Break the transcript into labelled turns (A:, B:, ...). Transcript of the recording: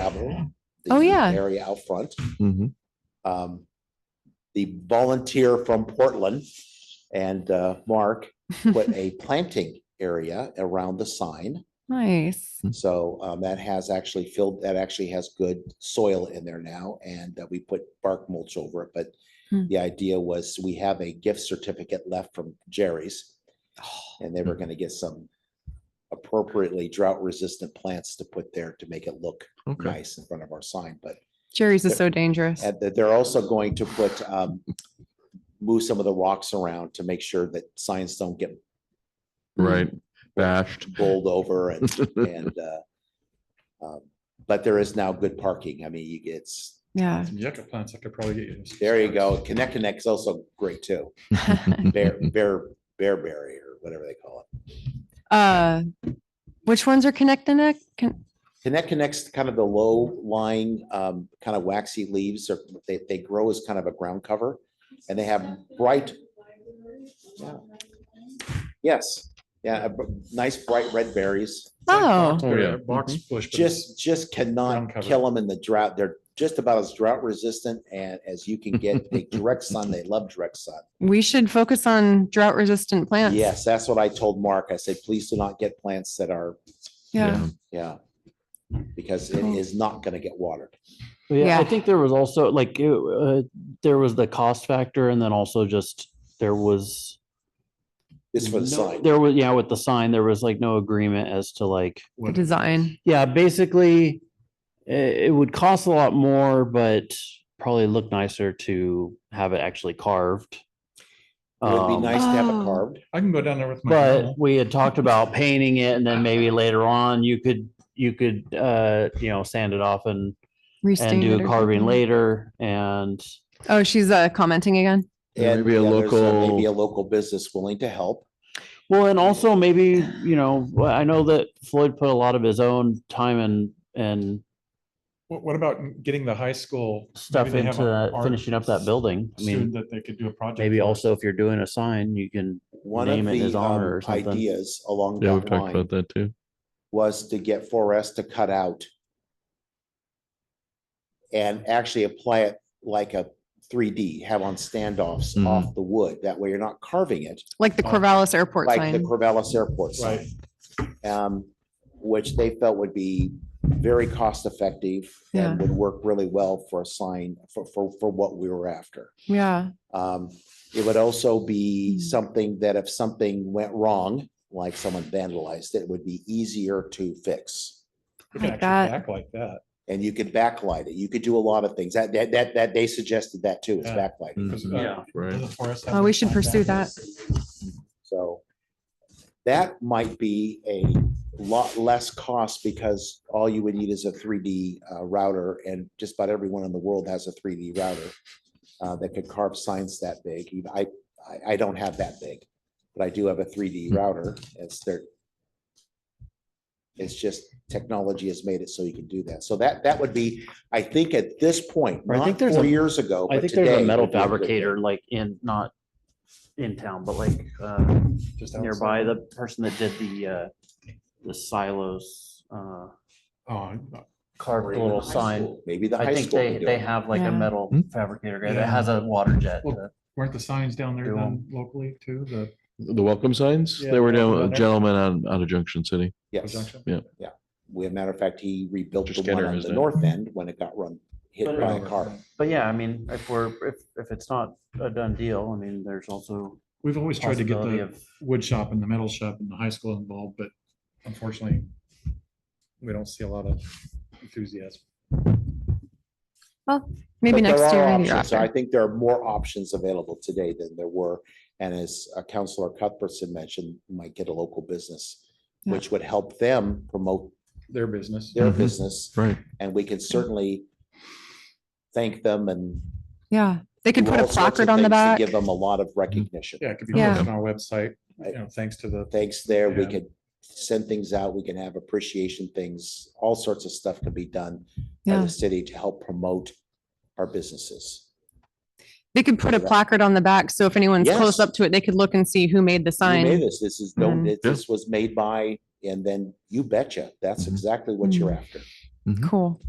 A: gravel. the
B: Oh, yeah.
A: Area out front.
C: Mhm.
A: Um, The volunteer from Portland and uh, Mark put a planting area around the sign.
B: Nice.
A: So um, that has actually filled, that actually has good soil in there now, and uh, we put bark mulch over it, but
B: Hmm.
A: the idea was we have a gift certificate left from Jerry's.
B: Oh.
A: And they were gonna get some appropriately drought resistant plants to put there to make it look
C: Okay.
A: nice in front of our sign, but
B: Jerry's is
A: Yep.
B: so dangerous.
A: and that they're also going to put, um, move some of the rocks around to make sure that signs don't get
B: Mm-hmm.
C: Right.
A: mm,
C: Bashed.
A: bowled over and, and, uh, um, but there is now good parking. I mean, you get,
B: Yeah.
D: Yucca plants, I could probably get you. some
A: there you go.
D: starts.
A: Connect Connect's also great too. Bear, bear, bearberry or whatever they call it.
B: Uh, which ones are connect the neck? Con-
A: Connect Connect's kind of the low lying, um, kind of waxy leaves or they, they grow as kind of a ground cover and they have bright. Yeah. Yes, yeah, a b- nice bright red berries.
D: Like
B: Oh.
D: box-
C: Oh, yeah.
D: Box
A: Mm-hmm.
D: bush. but it's-
A: just just cannot
D: Ground cover.
A: kill them in the drought. They're just about as drought resistant and as you can get. They direct sun. They love direct sun.
B: We should focus on drought resistant plants.
A: Yes, that's what I told Mark. I said, please do not get plants that are,
B: Yeah.
A: yeah. Because it
B: Cool.
A: is not going to get watered.
E: Yeah, I
B: Yeah.
E: think there was also like it, uh, there was the cost factor, and then also just there was
A: This for the
E: no-
A: sign.
E: There was yeah, with the sign, there was like no agreement as to like
B: The
D: what-
B: design.
E: yeah, basically i- it, would cost a lot more, but probably look nicer to have it actually carved.
A: It would be
E: Um,
A: nice to have
B: Oh.
A: it carved.
D: I can go down there with my.
E: but
D: journal.
E: we had talked about painting it, and then maybe later on you could you could uh you know sand it off and and
B: restain
E: do
B: it
E: a
B: or
E: carving
B: something.
E: later and.
B: Oh, she's uh, commenting again.
C: Yeah,
A: And,
C: maybe a
A: yeah, there's uh, Maybe a
C: local-
A: local business willing to help.
E: Well, and also maybe, you know, well, I know that Floyd put a lot of his own time and, and
D: What, what about getting the high school? maybe
E: stuff
D: they have
E: into
D: a
E: that-
D: art
E: finishing up that building. I
D: Student
E: mean,
D: that they could do a project.
E: maybe
D: for.
E: also if you're doing a sign, you can,
A: One of
E: Name it in his
A: the
E: honor or
A: um,
E: something.
A: ideas along
C: Yeah, we've
A: that
C: talked
A: line
C: about that too.
A: was to get 4S to cut out and actually apply it like a 3D, have on standoffs
E: Mm-hmm.
C: Mhm.
A: off the wood. That way you're not carving it
B: Like the
D: Oh.
B: Corvallis Airport
A: like the
B: sign.
A: Corvallis Airport
D: Right.
A: sign. um, Which they felt would be very cost effective
B: Yeah.
A: and would work really well for a sign for, for, for what we were after.
B: yeah.
A: Um, it would also be
B: Mm.
A: something that if something went wrong, like someone vandalized it, would be easier to fix.
D: We can
B: Like
D: actually
B: that.
D: Act like that.
A: And you could backlight it. You could do a lot of things. That, that, that, that they suggested that too, is
D: Yeah.
A: backlighting.
D: 'cause,
C: Mhm.
D: uh,
C: Right.
D: doesn't Forrest have
B: Oh, we
D: one
B: should
D: like
B: pursue that.
A: So that might be a lot less cost because all you would need is a three D uh, router and just about everyone in the world has a three D router uh, that could carve signs that big. Even I, I, I don't have that big, but I do have a three D
E: Hmm.
A: router. It's their it's just technology has made it so you can do that. So that, that would be, I think at this point,
E: I think
A: not
E: there's
A: four
E: a-
A: years ago.
E: I
A: but
E: think there's a
A: today
E: metal
A: would be good thing.
E: fabricator like in, not in town, but like, uh,
D: Just
E: nearby,
D: outside.
E: the person that did the, uh, the silos, uh,
D: Oh, I'm not-
E: carved
A: Or even
E: little
A: the high
E: sign.
A: school. Maybe the
E: I
A: high
E: think
A: school.
E: they,
A: could do
E: they
A: it.
E: have like a
B: Yeah.
E: metal
C: Hmm?
E: fabricator guy
D: Yeah.
E: that has a water jet.
D: Well,
E: to-
D: weren't the signs down there
E: Do
D: then locally too, the
C: The welcome signs,
D: Yeah,
C: they were
D: welcome
C: down,
D: letter.
C: gentlemen out, out of Junction City.
A: Yes.
D: junction?
A: We, as a matter of fact, he rebuilt
C: Just
A: the one
C: Kenner,
A: on the
C: isn't it?
A: north end when it got run, hit
E: But
A: by a
E: over.
A: car.
E: But yeah, I mean, if we're, if, if it's not a done deal, I mean, there's also
D: We've always tried to get
E: possibility
D: the
E: of,
D: wood shop and the metal shop and the high school involved, but unfortunately, we don't see a lot of enthusiasm.
A: But there
B: Maybe next
A: are
B: year or the year
A: options.
B: after.
A: I think there are more options available today than there were. And as uh, Counselor Cuthbertson mentioned, you might get a local business,
B: Yeah.
A: which would help them promote
D: Their business.
A: their
C: Mhm.
A: business.
C: Right.
A: And we can certainly thank them and
B: yeah. They could
A: do
B: put a
A: all sorts of
B: placard on the
A: things to
B: back.
A: Give them a lot of recognition.
D: Yeah, it could be
B: Yeah.
D: posted on our website, you
A: Right.
D: know, thanks to the
A: Thanks there, we
D: Yeah.
A: could send things out, we can have appreciation things, all sorts of stuff can be done by
B: Yeah.
A: the city to help promote our businesses.
B: They could put a
A: Yeah.
B: placard on the back. So if anyone's
A: Yes.
B: close up to it, they could look and see who made the
A: Who made
B: sign.
A: This, this is, no-
B: Mhm.
A: it- this was made by, and then you betcha, that's
C: Mhm.
A: exactly what you're after.
B: Cool.